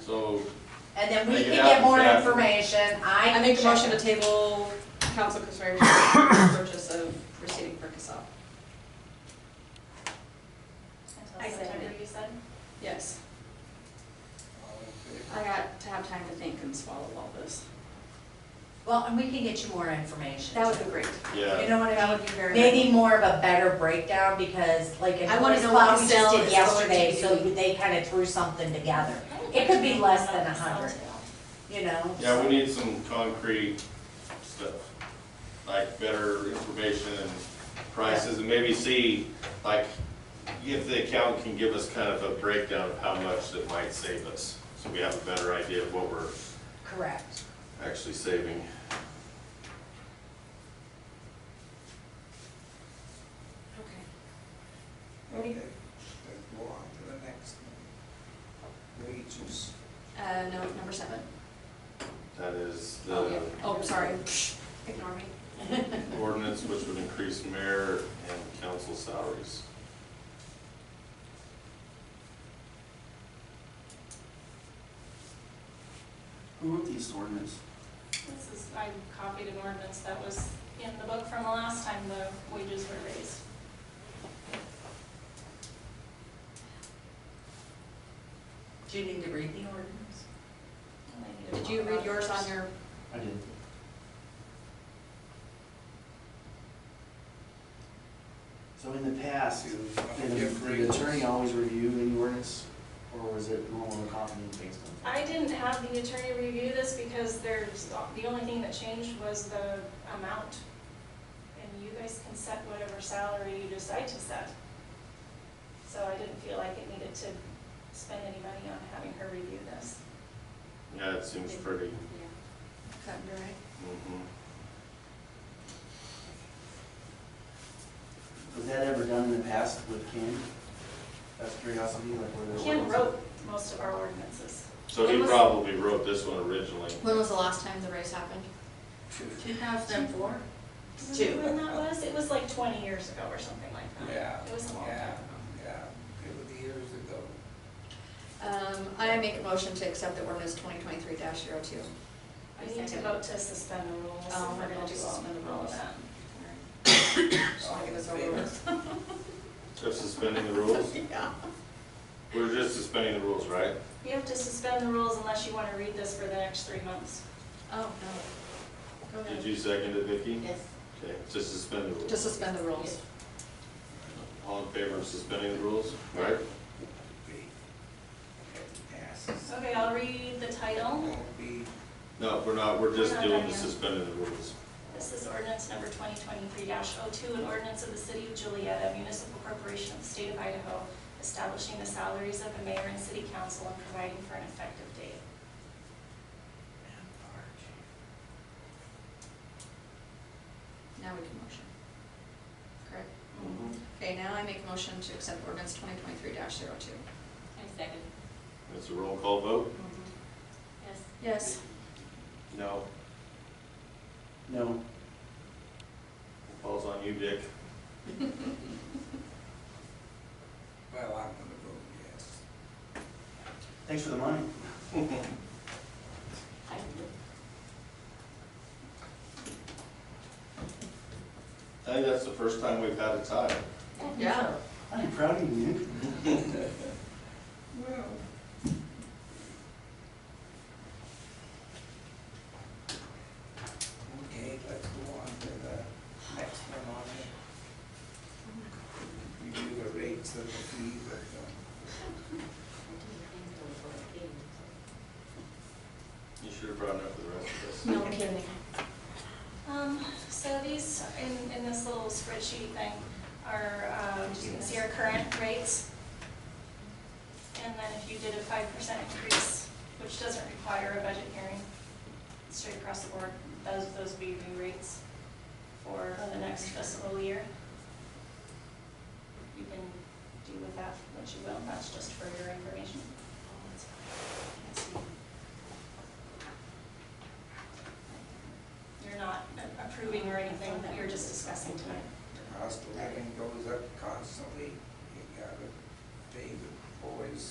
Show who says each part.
Speaker 1: So,
Speaker 2: And then we
Speaker 1: Make it
Speaker 2: can
Speaker 1: out
Speaker 2: get
Speaker 1: to
Speaker 2: more
Speaker 1: staff.
Speaker 2: information, I.
Speaker 3: I make a
Speaker 2: can
Speaker 3: motion to
Speaker 2: check-
Speaker 3: table council consideration of purchase of proceeding for Casella.
Speaker 4: I September, you said?
Speaker 3: Yes,
Speaker 5: All in favor?
Speaker 3: I got to have time to think and swallow all this.
Speaker 2: Well, and we can get you more information.
Speaker 3: That would be great.
Speaker 2: You
Speaker 1: yeah,
Speaker 2: know what
Speaker 3: That
Speaker 2: I
Speaker 3: would
Speaker 2: mean?
Speaker 3: be very.
Speaker 2: Maybe more of a better breakdown because like in
Speaker 3: I wanna
Speaker 2: Forest
Speaker 3: know what
Speaker 2: Cloud, we
Speaker 3: the sale
Speaker 2: just did
Speaker 3: is going to
Speaker 2: yesterday,
Speaker 3: be.
Speaker 2: so they kind of threw something together, It could be less than a hundred. you know?
Speaker 1: yeah, we need some concrete stuff, like better information and prices, and maybe see, like, if the accountant can give us kind of a breakdown of how much that might save us, so we have a better idea of what we're
Speaker 2: Correct.
Speaker 1: actually saving.
Speaker 3: Okay.
Speaker 5: Okay, let's go on to the next one. Wages.
Speaker 3: Uh, no, number seven.
Speaker 1: That is
Speaker 3: Oh, yeah.
Speaker 1: the
Speaker 3: Oh, sorry, ignore me.
Speaker 1: ordinance which would increase mayor and council salaries.
Speaker 6: Who wrote these ordinance?
Speaker 4: This is, I copied an ordinance that was in the book from the last time the wages were raised.
Speaker 2: Do you need to read the ordinance?
Speaker 4: And I need to
Speaker 3: Did you
Speaker 4: talk
Speaker 3: read
Speaker 4: about it
Speaker 3: yours
Speaker 4: first.
Speaker 3: on your,
Speaker 6: I did. So in the past, did the attorney always review the ordinance, or was it normal to copy and paste them?
Speaker 4: I didn't have the attorney review this because there's, the only thing that changed was the amount. And you guys can set whatever salary you decide to set. So I didn't feel like it needed to spend any money on having her review this.
Speaker 1: Yeah, it seems pretty.
Speaker 3: is that your right?
Speaker 1: mhm.
Speaker 6: Was that ever done in the past with Ken? That's curiosity, like where the
Speaker 4: Ken
Speaker 6: ordinance-
Speaker 4: wrote most of our ordinances.
Speaker 1: So he probably wrote this one originally.
Speaker 3: When was the last time the race happened?
Speaker 2: Two thousand and four?
Speaker 4: Remember When that was, it was like twenty years ago or something like that.
Speaker 5: Yeah,
Speaker 4: It was a long time
Speaker 5: yeah,
Speaker 4: ago.
Speaker 5: yeah, it was years ago.
Speaker 3: Um, I make a motion to accept the ordinance twenty twenty-three 2 zero two.
Speaker 4: We need to vote to suspend the rules Um, if
Speaker 3: Oh,
Speaker 4: we're
Speaker 3: we're
Speaker 4: gonna
Speaker 3: gonna
Speaker 4: do all
Speaker 3: suspend the
Speaker 4: all of
Speaker 3: rules.
Speaker 4: that.
Speaker 3: Just wanna get this over
Speaker 5: All in favor?
Speaker 3: with.
Speaker 1: Just suspending the rules?
Speaker 3: Yeah.
Speaker 1: We're just suspending the rules, right?
Speaker 4: You have to suspend the rules unless you wanna read this for the next three months.
Speaker 3: Oh, no. Go
Speaker 1: Did
Speaker 3: ahead.
Speaker 1: you second it, Vicky?
Speaker 2: Yes.
Speaker 1: Okay, just suspend the rules.
Speaker 3: Just suspend the rules.
Speaker 1: All in favor of suspending the rules, right?
Speaker 5: Okay, Passes.
Speaker 4: Okay, I'll read the title.
Speaker 5: Won't be
Speaker 1: No, we're not, we're just
Speaker 4: We're not
Speaker 1: doing
Speaker 4: done
Speaker 1: the
Speaker 4: yet.
Speaker 1: suspending the rules.
Speaker 4: This is ordinance number twenty twenty-three 2 an ordinance of the city of Julietta, municipal corporation of the state of Idaho, establishing the salaries of the mayor and city council and providing for an effective date.
Speaker 3: Now we can motion. Correct?
Speaker 1: Mm-hmm.
Speaker 3: Okay, now I make a motion to accept ordinance twenty twenty-three 2 zero two.
Speaker 4: I second.
Speaker 1: It's a roll call vote?
Speaker 4: Yes.
Speaker 3: Yes.
Speaker 1: No.
Speaker 6: No,
Speaker 1: Falls on you, Dick.
Speaker 5: Well, I'm gonna vote yes.
Speaker 6: thanks for the money.
Speaker 1: I think that's the first time we've had a tie.
Speaker 3: Yeah.
Speaker 6: I'm proud of you.
Speaker 5: Well. Okay, let's go on to the next one on it. Review the rates of the fees of
Speaker 1: You should have brought it up for the rest of us.
Speaker 3: No kidding.
Speaker 4: Um, so these, in, in this little spreadsheet thing, are, um, you can see our current rates. And then if you did a five percent increase, which doesn't require a budget hearing, straight across the board, those, those would be your new rates for the next fiscal year. You can do with that what you will, that's just for your information. You're not a- approving or anything, you're just discussing tonight.